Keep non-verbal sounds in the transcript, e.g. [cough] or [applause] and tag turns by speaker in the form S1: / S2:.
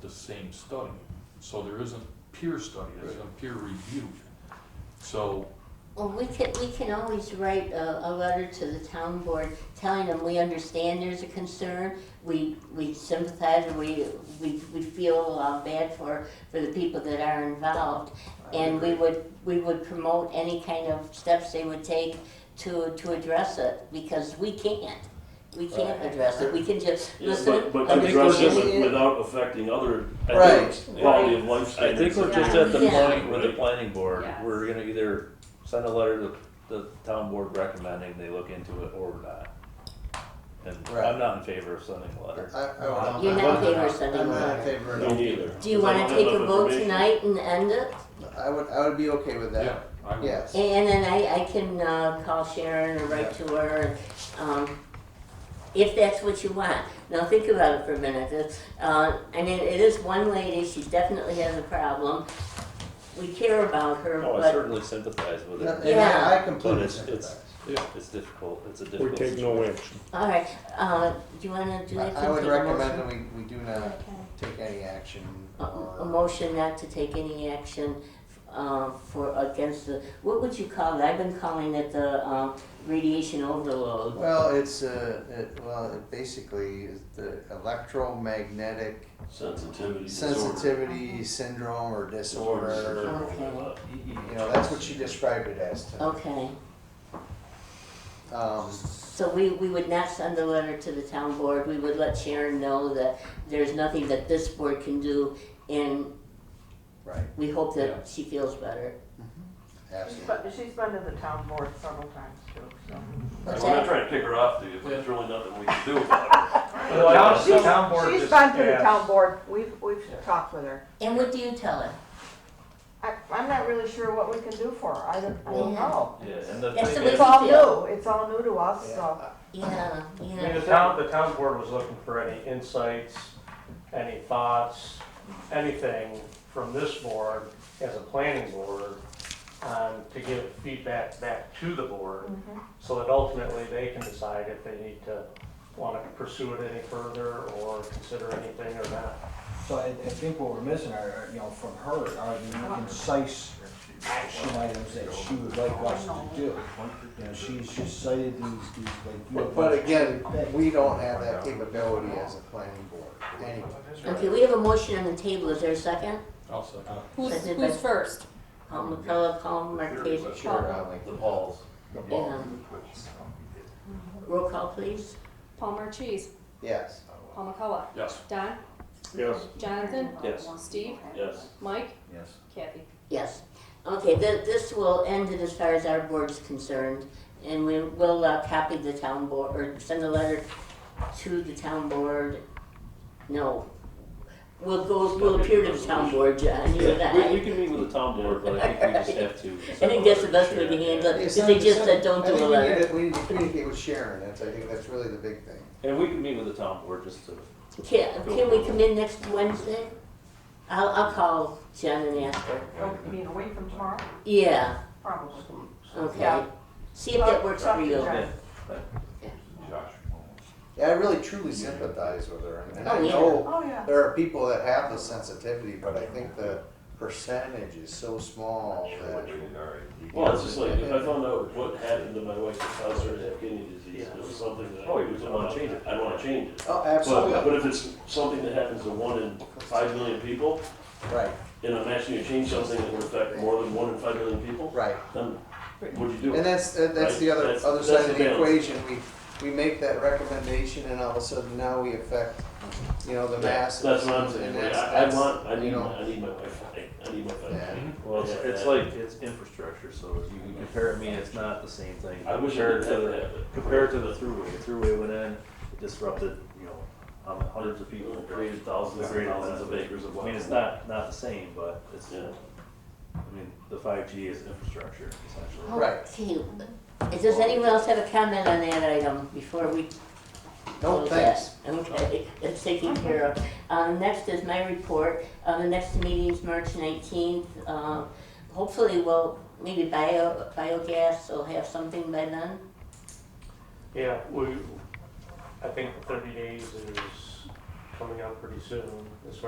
S1: the same study. So there isn't peer study, there isn't peer review. So,
S2: Well, we can, we can always write a, a letter to the town board telling them we understand there's a concern. We, we sympathize and we, we, we feel uh, bad for, for the people that are involved. And we would, we would promote any kind of steps they would take to, to address it because we can't. We can't
S3: Right.
S2: address it. We can just
S4: Yeah,
S2: listen.
S4: but, but
S2: I
S4: to
S2: think
S4: address
S2: we're
S4: it with-
S3: getting-
S4: without affecting other, I
S3: Right.
S4: think, quality of life
S5: I think
S4: standards.
S5: we're just at the
S2: Yeah.
S5: point with the planning board,
S6: Yes.
S5: we're gonna either send a letter to the town board recommending they look into it or not. And
S3: Right.
S5: I'm not in favor of sending a letter.
S3: I, I
S2: You're
S3: would
S2: not
S3: not.
S2: in favor of sending a
S3: I'm not in
S2: letter.
S3: favor
S4: Me
S3: of it.
S4: neither.
S2: Do you
S4: Because I
S2: wanna
S4: don't have
S2: take a
S4: enough
S2: vote
S4: information.
S2: tonight and end it?
S3: I would, I would be okay with
S1: yeah,
S3: that,
S1: I would.
S3: yes.
S2: And then I, I can uh, call Sharon or write to her, um, if that's what you want. Now think about it for a minute. It's, Uh, I mean, it is one lady, she definitely has a problem. We care about her,
S5: No, Oh, I
S2: but
S5: certainly sympathize with
S3: And
S5: it,
S3: I-
S2: Yeah.
S3: I completely
S5: But it's- it's-
S3: sympathize.
S5: it's difficult, it's a
S7: We
S5: difficult
S7: take
S5: situation.
S7: no action.
S2: all right. Uh, do you want to do
S3: I
S2: that?
S3: I would
S2: Take a
S3: recommend
S2: motion?
S3: that we, we do not
S2: Okay.
S3: take any action
S2: A, a
S3: or,
S2: motion not to take any action uh, for against the what would you call it? I've been calling it the uh, radiation overload.
S3: well, it's, uh, it, well, it basically is the electromagnetic
S4: Sensitivity disorder.
S2: Mm-hmm.
S3: sensitivity syndrome or disorder.
S4: Disorder.
S2: Okay.
S3: You know, that's what she described it as to,
S2: Okay.
S3: um,
S2: So we, we would not send a letter to the town board, we would let Sharon know that there's nothing that this board can do, and
S3: right,
S2: we hope
S1: Yeah.
S2: that she feels better.
S6: She's
S3: absolutely.
S6: been, she's been to the town board several times too, so.
S4: We're not trying to pick her off, dude, but there's really nothing we can do about it.
S8: Well, the
S6: She's-
S8: town board
S6: She's
S8: just
S6: been to the
S8: asked-
S6: town board, we've, we've talked with her.
S2: And what do you tell her?
S6: I, I'm not really sure what we can do for her, I don't, I don't know.
S5: Yeah, and the
S2: That's
S5: thing
S2: the
S5: is,
S6: It's all
S2: feel.
S6: new, it's all new to us,
S3: Yeah.
S6: so.
S2: Yeah,
S8: I mean, the
S2: yeah.
S8: town, the town board was looking for any insights, any thoughts, anything from this board as a planning board, um, to give feedback back to the board, so that ultimately they can decide if they need to wanna pursue it any further or consider anything or not.
S9: So I, I think what we're missing are, are, you know, from her, are the concise action items that she would like us to do. You know, she's just cited these, these, like. you
S3: But,
S9: have-
S3: but again, we don't have that capability as a planning board, anyway.
S2: Okay, we have a motion on the table, is there a second?
S1: I'll uh, second.
S10: Who's,
S2: Seconded by-
S10: who's first?
S2: Paul McCullough, Paul Marquez,
S3: Sure, I like
S5: the balls.
S2: um, roll call please.
S10: Paul Marquise,
S3: Yes.
S10: Paul McCullough,
S1: Yes,
S10: Don,
S4: Yes.
S10: Jonathan,
S5: Yes.
S10: Steve,
S4: Yes.
S10: Mike,
S9: Yes.
S10: Kathy.
S2: Yes. Okay, th- this will end it as far as our board's concerned, and we will uh, copy the town board, or send a letter to the town board. No, we'll go, we'll appear to the town board, John, you and
S5: Yeah, we, we
S2: I.
S5: can meet with the town board, but I think we just have to.
S2: [laughs] I think that's the best way to handle it, because they just said, don't do a
S3: I
S2: letter.
S3: think we need to, we need to communicate with Sharon, that's, I think that's really the big thing.
S5: And we can meet with the town board just to
S2: Can, can we come in next Wednesday? I'll, I'll call John and ask her.
S6: Oh, You mean a week from tomorrow?
S2: Yeah,
S6: Probably.
S2: okay.
S6: Yeah.
S2: See if that works for you.
S6: Yeah.
S1: Josh.
S3: Yeah, I really truly sympathize with her, and
S2: Oh,
S3: I
S2: yeah.
S3: know
S6: Oh, yeah.
S3: there are people that have the sensitivity, but I think the percentage is so small that.
S4: Well, it's just like, if I found out what happened to my wife with Alzheimer's, kidney disease, it was something that.
S5: Oh, you wouldn't wanna change it.
S4: I'd wanna change it.
S3: Oh,
S4: But,
S3: absolutely,
S4: but if it's something that happens to one in five million people,
S3: right,
S4: and I'm asking you to change something that would affect more than one in five million people,
S3: right.
S4: then what'd you do?
S3: And that's, that- that's the
S4: Right,
S3: other,
S4: that's-
S3: other
S4: that's
S3: side
S4: the
S3: of the
S4: balance.
S3: equation, we, we make that recommendation and all of a sudden now we affect, you know, the
S4: That's
S3: masses.
S4: what I'm
S3: and
S4: saying, like,
S3: that's-
S4: I, I
S3: that's,
S4: want, I
S3: you
S4: need,
S3: know,
S4: my- I need my Wi-Fi, I need my
S3: Yeah.
S4: Wi-Fi.
S5: Well, it's, it's like, it's infrastructure, so if you can compare it, I mean, it's not the same thing.
S4: I wish I
S5: Compare it
S4: didn't have
S5: to
S4: to
S5: the-
S4: have it.
S5: Compare it to the throughway, the throughway went in, it disrupted, you know, um, hundreds of people, created thousands and
S4: Created
S5: thousands of
S4: thousands.
S5: acres of land. I mean, it's not, not the same, but it's,
S4: Yeah.
S5: I mean, the five G is infrastructure essentially.
S3: Right.
S2: Okay, does anyone else have a comment on that item before we
S3: No,
S2: close
S3: thanks.
S2: that? Okay, [laughs] that's taken care of. Um, next is my report, uh, the next meeting's March nineteenth, uh, hopefully we'll, maybe bio, biogas will have something by then.
S8: Yeah, we, I think the thirty days is coming up pretty soon, as